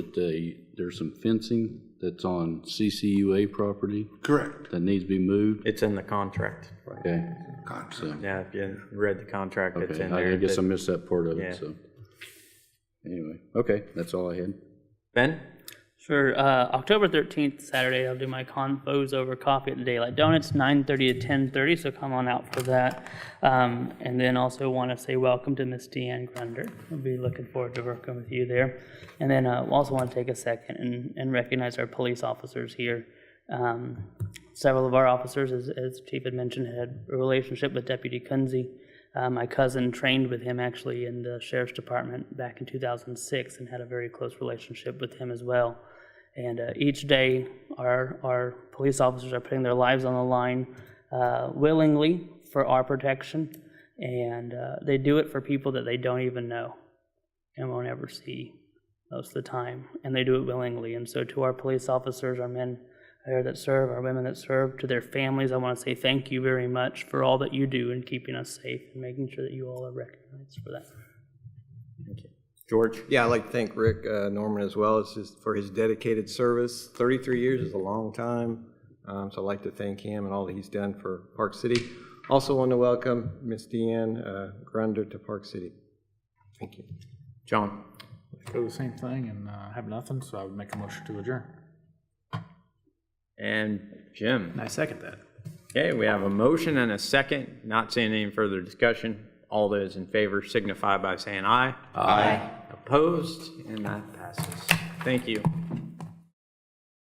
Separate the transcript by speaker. Speaker 1: that they, there's some fencing that's on CCUA property
Speaker 2: Correct.
Speaker 1: that needs to be moved.
Speaker 3: It's in the contract.
Speaker 1: Okay.
Speaker 2: Contract.
Speaker 3: Yeah, if you read the contract, it's
Speaker 1: Okay,
Speaker 3: in
Speaker 1: I I
Speaker 3: there.
Speaker 1: guess I
Speaker 3: that-
Speaker 1: missed that part of
Speaker 3: Yeah.
Speaker 1: it, so. Anyway, okay, that's all I had.
Speaker 3: Ben?
Speaker 4: Sure. Uh, October thirteenth, Saturday, I'll do my confos over coffee at the Daylight Donuts, nine thirty to ten thirty. So come on out for that. Um, and then also want to say welcome to Miss Deanne Grunder. I'll be looking forward to working with you there. And then uh, also want to take a second and, and recognize our police officers here. Um, several of our officers, as, as Chief had mentioned, had a relationship with Deputy Kunze. Uh, my cousin trained with him actually in the sheriff's department back in 2006 and had a very close relationship with him as well. And uh, each day, our, our police officers are putting their lives on the line uh, willingly for our protection. And uh, they do it for people that they don't even know and won't ever see most of the time. And they do it willingly. And so, to our police officers, our men there that serve, our women that serve, to their families, I want to say thank you very much for all that you do in keeping us safe and making sure that you all are recognized for that.
Speaker 3: George?
Speaker 5: Yeah, I'd like to thank Rick uh, Norman as well as his, for his dedicated service. 33 years is a long time, um, so I'd like to thank him and all that he's done for Park City. Also want to welcome Miss Deanne uh, Grunder to Park City. Thank you.
Speaker 3: John?
Speaker 6: do the same thing and uh, have nothing, so I would make a motion to adjourn.
Speaker 3: And Jim?
Speaker 6: I second that.
Speaker 3: Okay, we have a motion and a second. Not seeing any further discussion. All those in favor signify by saying aye. Aye. Opposed? And that passes. Thank you.